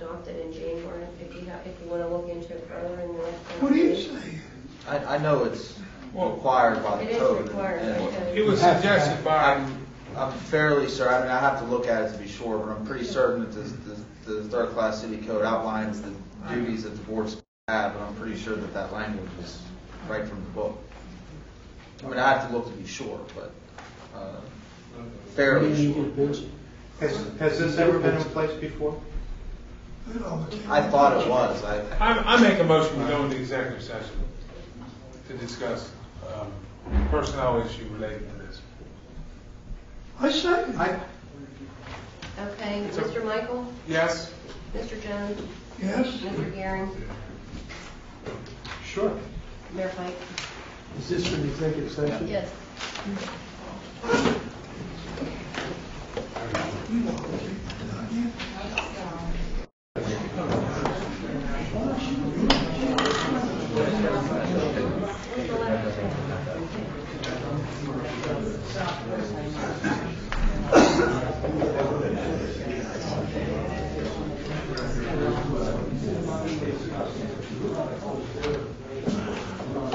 prompted in January, if you have, if you want to look into it further in the next. What do you conversation. say? I, I know it's Well- required by It the is code. and- required by and code. It was suggested by, I'm, I'm fairly certain, I mean, I have to look at it to be sure, but I'm pretty certain that this, this, the third class city code outlines the duties that the boards have, and I'm pretty sure that that language is right from the book. I mean, I have to look to be sure, but, uh, fairly sure. Has, has this ever been in place before? It all became- I thought it was, I, I, I make a motion, we go into executive session to discuss, um, personnel issue related to this. I second. I, Okay, a- Mr. Michael, Yes? Mr. Jones, Yes? Mr. Gearing, sure. Mayor Pike. Is this an executive session? Yes.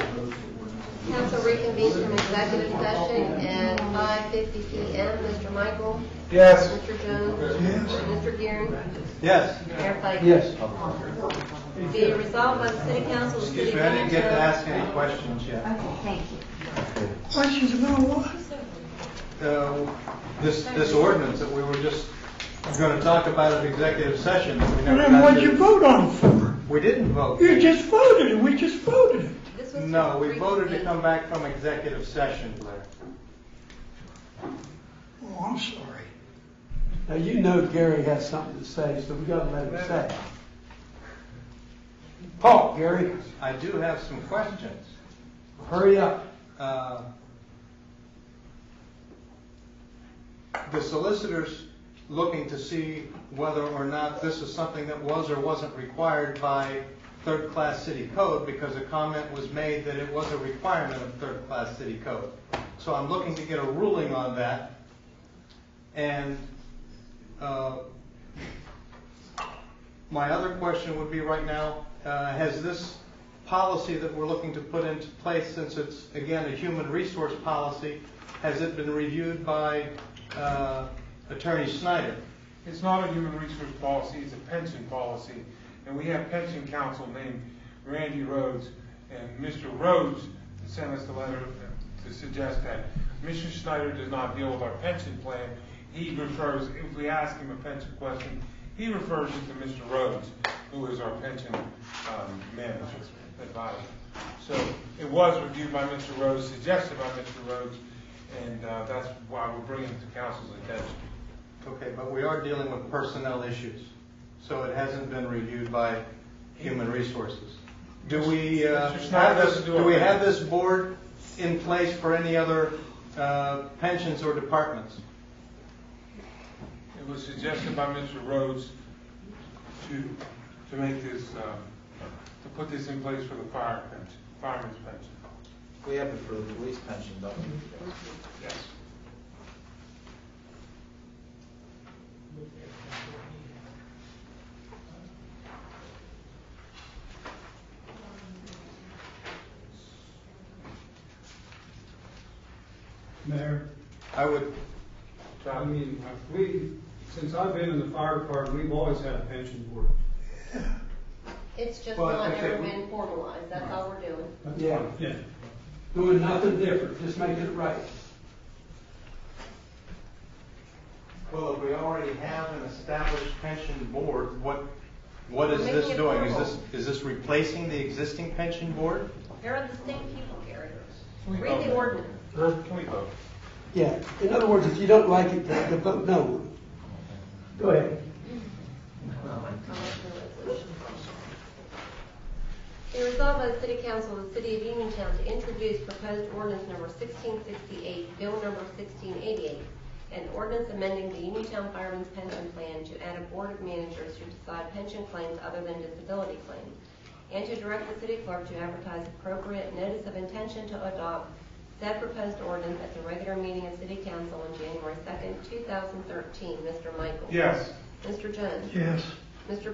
Council reconvenes from executive session at 5:50 PM. Mr. Michael, Yes. Mr. Jones, Yes. Mr. Gearing, Yes. Mayor Pike. Yes. Be it resolved by the City Council of the City Excuse of me, I didn't get to Canfield- ask any questions yet. Questions about what? Uh, This, this ordinance that we were just going to talk about at executive session. that we And never then got what'd to. you vote on it for? We didn't vote. You just voted it, we just voted it. This was No, we reconvened. voted to come back from executive session, Blair. Oh, I'm sorry. Now, you know Gary has something to say, so we gotta let him say it. Paul, Gary, I do have some questions. hurry up. Uh, The solicitor's looking to see whether or not this is something that was or wasn't required by third-class city code, because a comment was made that it was a requirement of third-class city code. So I'm looking to get a ruling on that. And uh, my other question would be right now, uh, has this policy that we're looking to put into place, since it's, again, a human resource policy, has it been reviewed by uh, Attorney Snyder? It's not a human resource policy, it's a pension policy, and we have pension counsel named Randy Rhodes, and Mr. Rhodes sent us the letter to suggest that Mr. Schneider does not deal with our pension plan, he refers, if we ask him a pension question, he refers it to Mr. Rhodes, who is our pension um, manager, advisor. So it was reviewed by Mr. Rhodes, suggested by Mr. Rhodes, and uh, that's why we're bringing it to council's attention. Okay, but we are dealing with personnel issues, so it hasn't been reviewed by Human Resources. Do we, uh, Mr. Snyder have this, doesn't do do we it. have this board in place for any other uh, pensions or departments? It was suggested by Mr. Rhodes to, to make this, uh, to put this in place for the fire pension, fireman's pension. we have it for the police pension, don't we? Yes. Mayor, I would, I John? mean, we, since I've been in the fire department, we've always had a pension board. It's just Well, not okay, ever we- been formalized, that's all we're doing. Yeah, Yeah. doing nothing different, just making it right. well, if we already have an established pension board, what, what is We're this making it doing? Is formal. this, is this replacing the existing pension board? There are distinct people, Gary. Can we Read the vote? ordinance. Huh? Can we vote? Yeah, in other words, if you don't like it, the the vote no. Go ahead. Be resolved by the City Council of the City of Uniontown to introduce proposed ordinance number 1668, Bill number 1688, an ordinance amending the Uniontown Fireman's Pension Plan to add a board of managers who decide pension claims other than disability claims, and to direct the city clerk to advertise appropriate notice of intention to adopt said proposed ordinance at the regular meeting of City Council on January 2nd, 2013. Mr. Michael? Yes. Mr. Jones? Yes. Mr.